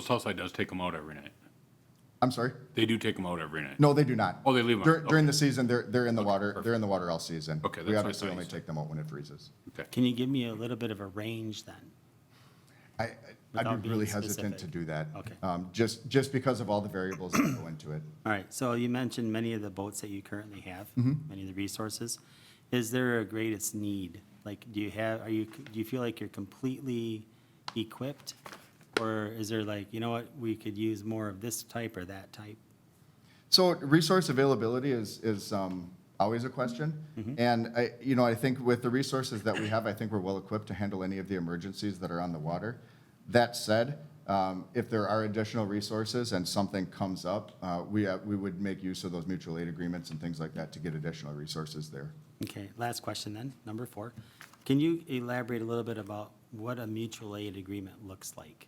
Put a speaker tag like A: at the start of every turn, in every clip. A: Southside does take them out every night.
B: I'm sorry?
A: They do take them out every night.
B: No, they do not.
A: Oh, they leave 'em out.
B: During, during
A: Okay.
B: the season, they're, they're in the water, they're in the water all season.
A: Okay, that's
B: We
A: what I
B: obviously
A: thought you
B: only
A: said.
B: take them out when it freezes.
A: Okay.
C: Can you give me a little bit of a range then?
B: I, I- I'd
C: Without
B: be really
C: being
B: hesitant to
C: specific.
B: do that.
C: Okay.
B: Um, just, just because of all the variables that go into it.
C: All right, so you mentioned many of the boats that you currently have, many of the resources. Is there a greatest need? Like, do you have, are you, do you feel like you're completely equipped? Or is there like, you know what, we could use more of this type or that type?
B: So resource availability is, is um, always a question. And I, you know, I think with the resources that we have, I think we're well-equipped to handle any of the emergencies that are on the water. That said, um, if there are additional resources and something comes up, uh, we, uh, we would make use of those mutual aid agreements and things like that to get additional resources there.
C: Okay, last question then, number four. Can you elaborate a little bit about what a mutual aid agreement looks like?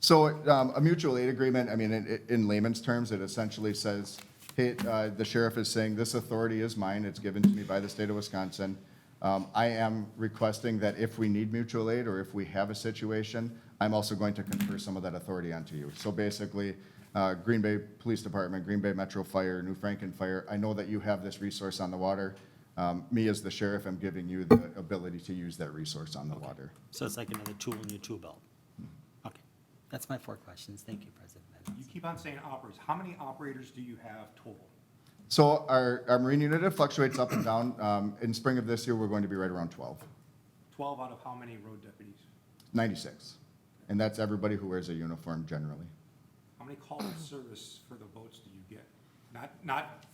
B: So um, a mutual aid agreement, I mean, in- in layman's terms, it essentially says, hey, uh, the sheriff is saying, this authority is mine, it's given to me by the state of Wisconsin. Um, I am requesting that if we need mutual aid or if we have a situation, I'm also going to confer some of that authority onto you. So basically, uh, Green Bay Police Department, Green Bay Metro Fire, New Franken Fire, I know that you have this resource on the water. Um, Me as the sheriff, I'm giving you the ability to use that resource on the water.
C: So it's like another tool in your tool belt? Okay, that's my four questions. Thank you, President Bennett.
D: You keep on saying operators. How many operators do you have total?
B: So our, our marine unit, it fluctuates up and down. Um, In spring of this year, we're going to be right around 12,
D: Twelve out of how many road deputies?
B: 96. And that's everybody who wears a uniform generally.
D: How many calls of service for the boats do you get? Not, not,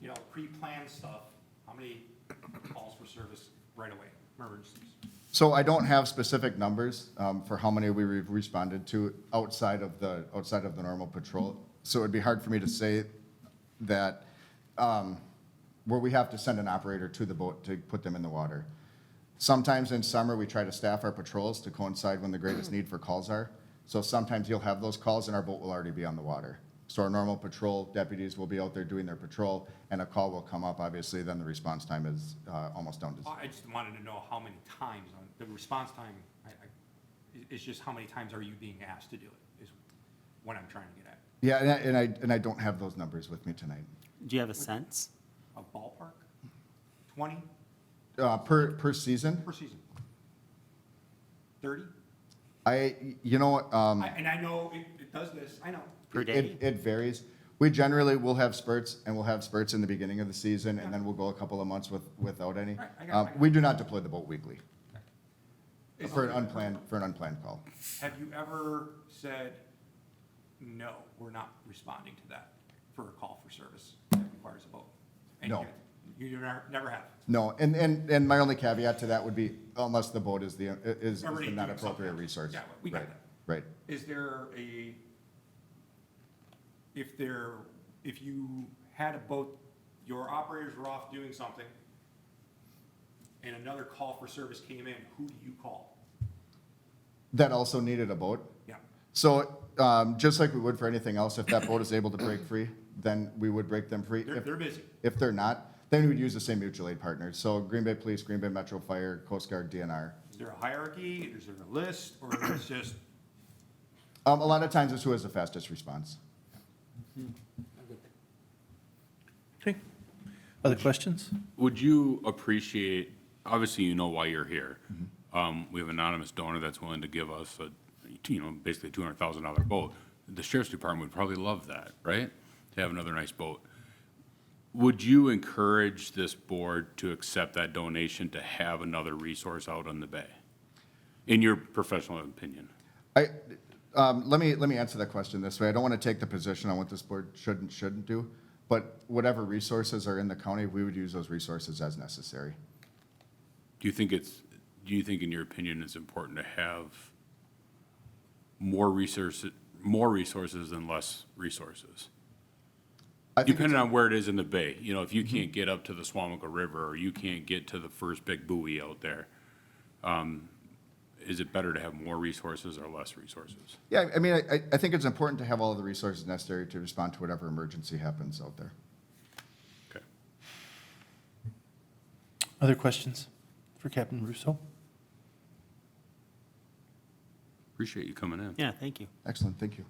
D: you know, pre-planned stuff. How many calls for service right away, emergencies?
B: So I don't have specific numbers um, for how many we re- responded to outside of the, outside of the normal patrol. So it'd be hard for me to say that, um, where we have to send an operator to the boat to put them in the water. Sometimes in summer, we try to staff our patrols to coincide when the greatest need for calls are. So sometimes you'll have those calls and our boat will already be on the water. So our normal patrol deputies will be out there doing their patrol and a call will come up, obviously, then the response time is uh, almost down to zero.
D: I I just wanted to know how many times, on the response time, I, I, it- it's just how many times are you being asked to do it, is what I'm trying to get at.
B: Yeah, and I- and I, and I don't have those numbers with me tonight.
C: Do you have a sense?
D: A ballpark? Twenty
B: Uh, Per, per season,
D: per season? Thirty?
B: I, you know, um,
D: I- And I know it, it does this, I know.
C: Per day?
B: it, it varies. We generally will have spurts, and we'll have spurts in the beginning of the season, and then we'll go a couple of months with, without any.
D: Right, I got-
B: Um,
D: I got-
B: We do not deploy the boat weekly
D: Is-
B: for an unplanned, for an unplanned call.
D: Have you ever said, no, we're not responding to that for a call for service that requires a vote? And
B: No.
D: You you never, never have.
B: No, and, and, and my only caveat to that would be unless the boat is the, is is
D: Already
B: the not
D: doing
B: appropriate
D: something.
B: resource.
D: Yeah, we got
B: Right,
D: that.
B: Right.
D: Is there a, if there, if you had a boat, your operators were off doing something, and another call for service came in, who do you call?
B: That also needed a boat.
D: Yeah,
B: So, um, just like we would for anything else, if that boat is able to break free, then we would break them free.
D: they're,
B: If-
D: they're busy.
B: If they're not, then we would use the same mutual aid partners. So Green Bay Police, Green Bay Metro Fire, Coast Guard, DNR.
D: Is there a hierarchy, is there a list, or is it just,
B: Um, a lot of times it's who has the fastest response.
E: Okay. Other questions?
A: Would you appreciate, obviously you know why you're here. Um, we have an anonymous donor that's willing to give us a, you know, basically two hundred thousand dollar boat. The sheriff's department would probably love that, right? To have another nice boat. Would you encourage this board to accept that donation to have another resource out on the bay? In your professional opinion?
B: I, um, let me, let me answer that question this way. I don't want to take the position on what this board should and shouldn't do, but whatever resources are in the county, we would use those resources as necessary.
A: Do you think it's, do you think in your opinion it's important to have more resources, more resources than less resources?
B: I think it's- Mm-hmm.
A: Depending on where it is in the bay, you know, if you can't get up to the Swamico River or you can't get to the first big buoy out there, um, is it better to have more resources or less resources?
B: Yeah, I mean, I- I, I think it's important to have all of the resources necessary to respond to whatever emergency happens out there.
A: Okay.
E: Other questions for Captain Russo?
A: Appreciate you coming in.
C: Yeah, thank you.
B: Excellent, thank you.